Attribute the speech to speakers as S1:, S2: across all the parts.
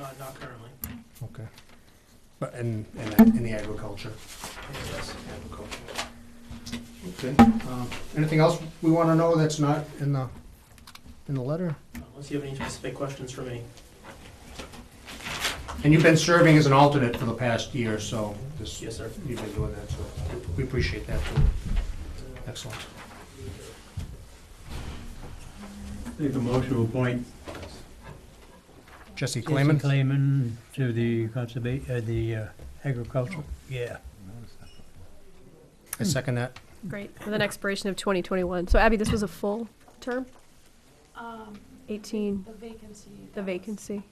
S1: Not, Uh, not currently.
S2: Okay. But in, in, the- in the agriculture.
S1: Yes, Uh, agriculture.
S2: Okay. Um, Anything else we want to know that's not in the, in the letter?
S1: Unless you have any specific questions for me.
S2: And you've been serving as an alternate for the past year, so this,
S1: Yes, sir.
S2: you've been doing that, so we appreciate that too. Excellent.
S3: Make a motion to appoint
S2: Jesse
S3: Jason
S2: Clayman?
S3: Clayman to the conserva, uh, the uh, agricultural, yeah.
S2: I second that.
S4: Great, with an expiration of 2021. So Abby, this was a full term,
S5: Um,
S4: 18,
S5: the vacancy. that
S4: the
S5: was
S4: vacancy.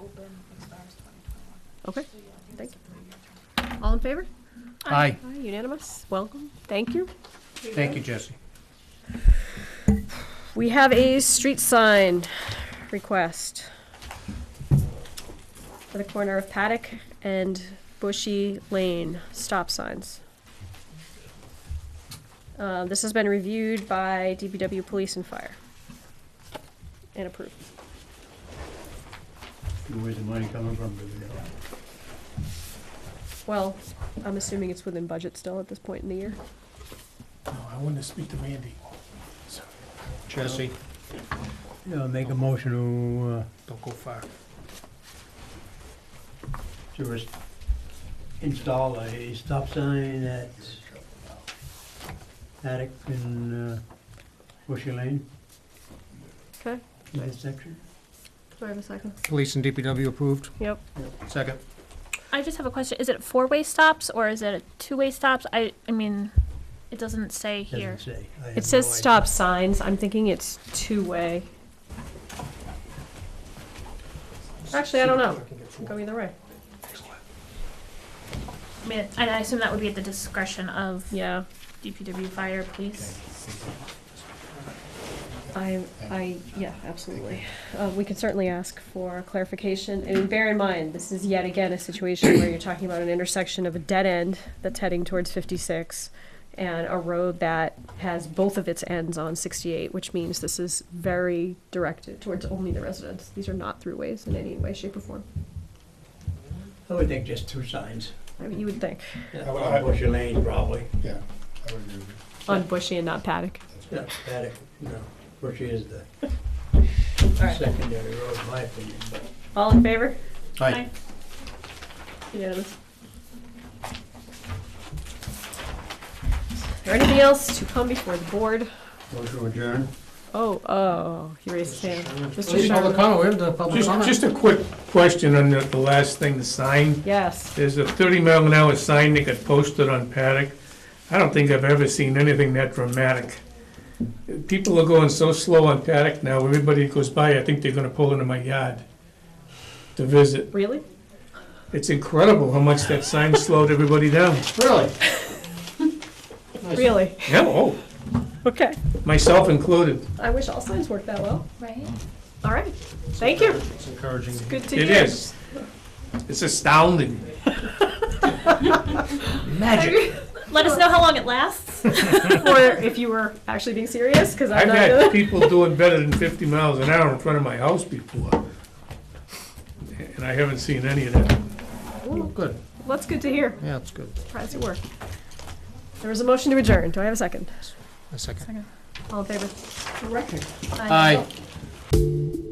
S5: Open expires twenty twenty-one.
S4: Okay,
S5: So, yeah, I think
S4: Thank
S5: it's a three-year term.
S4: all in favor?
S2: Aye.
S4: Aye, unanimous, welcome, thank you.
S2: Thank you, Jesse.
S4: We have a street sign request for the corner of Paddock and Bushy Lane, stop signs. Uh, This has been reviewed by DPW Police and Fire and approved.
S3: Where's the money coming from? Do we know?
S4: Well, I'm assuming it's within budget still at this point in the year.
S1: No, I wanted to speak to Randy.
S2: Jesse,
S3: Yeah, make a motion to, uh,
S2: don't go far.
S3: to res- install a stop sign at Attic in uh, Bushy Lane,
S4: Okay,
S3: that section.
S4: do I have a second?
S2: Police and DPW approved?
S4: Yep.
S2: Second.
S6: I just have a question. Is it four-way stops or is it two-way stops? I, I mean, it doesn't say here.
S3: Doesn't say. I have
S4: It says
S3: no idea.
S4: stop signs, I'm thinking it's two-way. Actually, I don't know, go either way.
S6: I mean, and I assume that would be at the discretion of
S4: Yeah,
S6: DPW, fire, police.
S4: I, I, yeah, absolutely. Uh, we can certainly ask for clarification, and bear in mind, this is yet again a situation where you're talking about an intersection of a dead end that's heading towards fifty-six and a road that has both of its ends on sixty-eight, which means this is very directed towards only the residents. These are not throughways in any way, shape, or form,
S3: I would think just two signs,
S4: I mean, you would think,
S3: on Bushy Lane probably,
S7: Yeah, I would agree with you.
S4: on Bushy and not Paddock.
S3: Yeah, Attic, you know, Bushy is the
S4: right.
S3: secondary road, in my opinion, but.
S4: All in favor?
S2: Aye.
S4: Unanimous. Is there anything else to come before the board?
S3: Motion to adjourn.
S4: Oh, oh, he raised his hand. Mr.
S2: Public
S4: Sherman?
S2: comment, we have the public
S8: Just,
S2: comment.
S8: just a quick question on the, the last thing, the sign.
S4: Yes.
S8: There's a thirty mile an hour sign that got posted on Paddock. I don't think I've ever seen anything that dramatic. People are going so slow on Paddock now, everybody that goes by, I think they're gonna pull into my yard to visit.
S4: Really?
S8: It's incredible how much that sign slowed everybody down.
S2: Really?
S4: Really?
S8: Yeah, oh,
S4: Okay.
S8: myself included.
S4: I wish all signs worked that well.
S6: Right?
S4: All right. Thank you.
S2: It's encouraging.
S4: Good to hear.
S8: It is. It's astounding.
S2: Magic.
S6: Let us know how long it lasts.
S4: Or if you were actually being serious, because I'm
S8: I've
S4: not doing
S8: had people doing better than fifty miles an hour in front of my house before. And I haven't seen any of that.
S2: Good,
S4: Well, that's good to hear.
S2: yeah, it's good.
S4: Surprised it worked. There was a motion to adjourn. Do I have a second?
S2: A second.
S4: All in favor?
S2: Aye.